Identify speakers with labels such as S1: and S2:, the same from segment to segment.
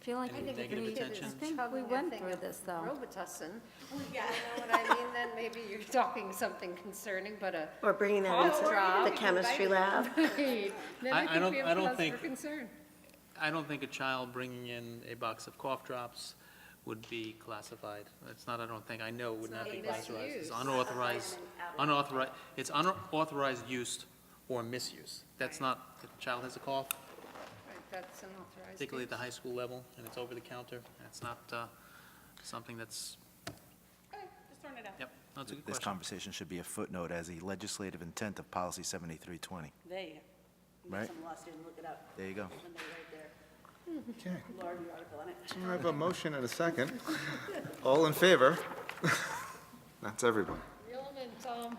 S1: feel like
S2: Any
S1: we-
S2: negative
S1: we-
S2: attention?
S1: I think we went through this, though.
S3: Robitussin. Yeah. You know what I mean? Then maybe you're talking something concerning, but a.
S4: Or bringing that
S3: Cough drop.
S4: into the chemistry lab.
S2: I- I
S3: Then I think
S2: don't-
S3: we
S2: I don't
S3: have cause for
S2: think-
S3: concern.
S2: I don't think a child bringing in a box of cough drops would be classified. It's not, I don't think, I know would not be
S3: a
S2: classified.
S3: misuse.
S2: It's unauthorized, unauthorized, it's unauthorized use or misuse. That's not, if a child has a cough,
S3: Right, That's an authorized.
S2: particularly at the
S3: use.
S2: high school level, and it's over the counter, that's not uh, something that's,
S5: Just throwing it out.
S2: yep, that's a good
S6: This
S2: question.
S6: conversation should be a footnote as a legislative intent of policy 7320.
S5: There you go.
S6: Right.
S5: Some law student, look it up.
S6: There you go.
S5: When they write their
S7: Okay,
S5: larvae article on it.
S7: so I have a motion and a second. All in favor? That's everyone.
S3: Reel 'em in, Tom.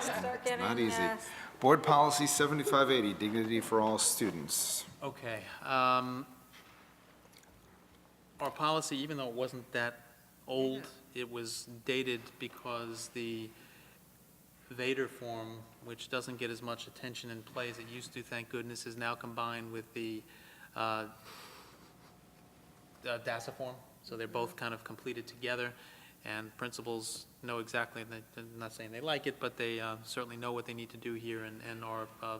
S1: Start getting,
S7: Not easy.
S1: uh,
S7: Board Policy 7580, Dignity for All Students.
S2: Okay. um, Our policy, even though it wasn't that old, it was dated because the Vader form, which doesn't get as much attention in play as it used to, thank goodness, is now combined with the uh, uh, DASSA form, so they're both kind of completed together, and principals know exactly, and they- I'm not saying they like it, but they uh, certainly know what they need to do here and and are uh,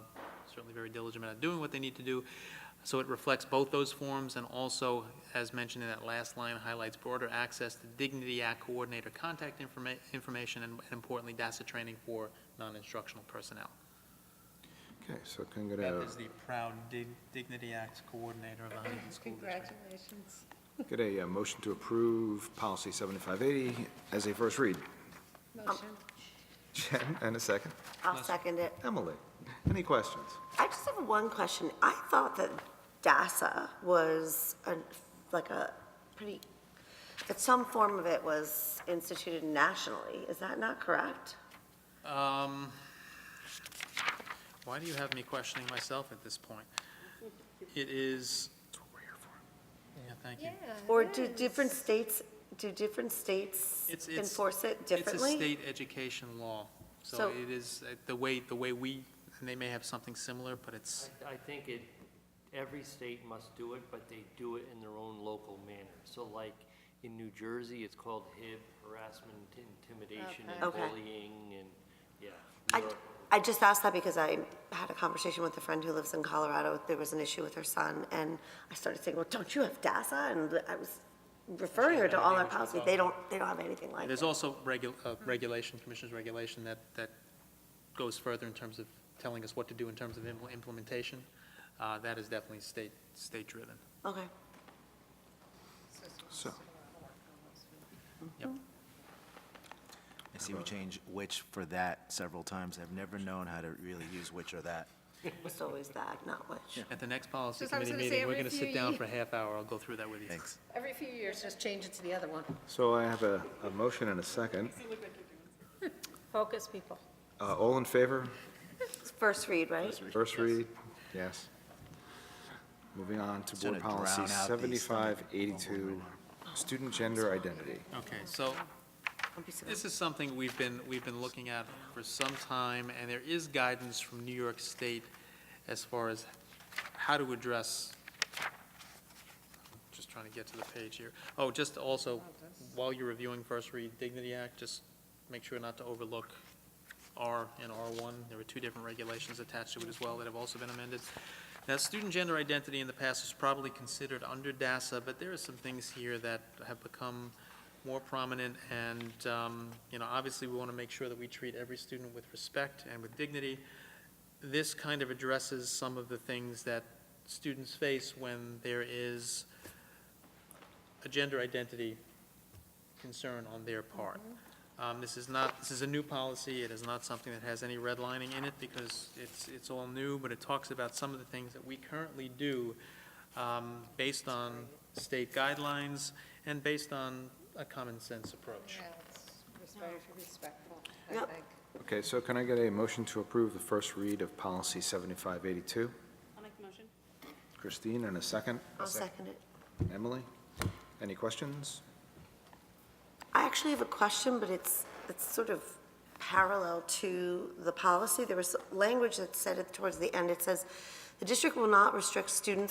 S2: certainly very diligent about doing what they need to do. So it reflects both those forms, and also, as mentioned in that last line, highlights broader access to Dignity Act coordinator contact informa- information, and and importantly, DASSA training for non-instructional personnel.
S7: Okay, so can I get
S2: That
S7: a,
S2: is the proud Dig- Dignity Act coordinator of the Huntington School District.
S3: Congratulations.
S7: get a uh, motion to approve Policy 7580 as a first read?
S1: Oh.
S3: Motion.
S7: Jen, and a second.
S4: I'll second it.
S7: Emily, any questions?
S4: I just have one question. I thought that DASA was a, like a pretty, that some form of it was instituted nationally. Is that not correct?
S2: Um, Why do you have me questioning myself at this point? It is. That's what we're here for. Yeah, thank you.
S4: Or do different states, do different states
S2: It's- it's-
S4: enforce it
S2: It's a
S4: differently?
S2: state education law, so
S4: So-
S2: it is, uh, the way, the way we, and they may have something similar, but it's,
S8: I I think it, every state must do it, but they do it in their own local manner. So like, in New Jersey, it's called HIB, harassment, intimidation, and
S4: Okay. Okay.
S8: bullying, and, yeah.
S4: I,
S8: New York-
S4: I just asked that because I had a conversation with a friend who lives in Colorado. There was an issue with her son, and I started saying, well, don't you have DASA? And I was referring her to all our policies. They don't, they don't have anything like
S2: there's
S4: it.
S2: also regu, uh, regulation, commissioner's regulation that, that goes further in terms of telling us what to do in terms of impl- implementation. Uh, that is definitely state, state driven.
S4: Okay.
S7: So,
S2: Yep.
S6: I see we change which for that several times. I've never known how to really use which or that.
S4: It's always that, not which.
S2: At the next policy
S3: Just I was
S2: committee
S3: gonna say
S2: meeting, we're gonna
S3: every few
S2: sit down
S3: ye-
S2: for a half hour, I'll go through that with you.
S6: Thanks.
S3: Every few years, just change it to the other one.
S7: so I have a, a motion and a second.
S1: focus people.
S7: Uh, All in favor?
S4: It's First read, right?
S7: First read, yes. Moving on to
S6: It's
S7: Board
S6: gonna
S7: Policy
S6: drown out these stomach
S7: 7582, Student Gender Identity.
S2: Okay, so this is something we've been, we've been looking at for some time, and there is guidance from New York State as far as how to address, just trying to get to the page here. Oh, just also, while you're reviewing First Read Dignity Act, just make sure not to overlook R and R1. There were two different regulations attached to it as well that have also been amended. Now, student gender identity in the past was probably considered under DASSA, but there are some things here that have become more prominent, and, um, you know, obviously, we want to make sure that we treat every student with respect and with dignity. This kind of addresses some of the things that students face when there is a gender identity concern on their part. Um, This is not, this is a new policy, it is not something that has any redlining in it, because it's, it's all new, but it talks about some of the things that we currently do um, based on state guidelines and based on a common sense approach.
S3: Yeah, it's very respectful, I
S4: Yep.
S3: think.
S7: Okay, so can I get a motion to approve the first read of Policy 7582?
S5: I'll make the motion.
S7: Christine, and a second?
S4: I'll second it.
S7: Emily? Any questions?
S4: I actually have a question, but it's, it's sort of parallel to the policy. There was language that said it towards the end. It says, "The district will not restrict students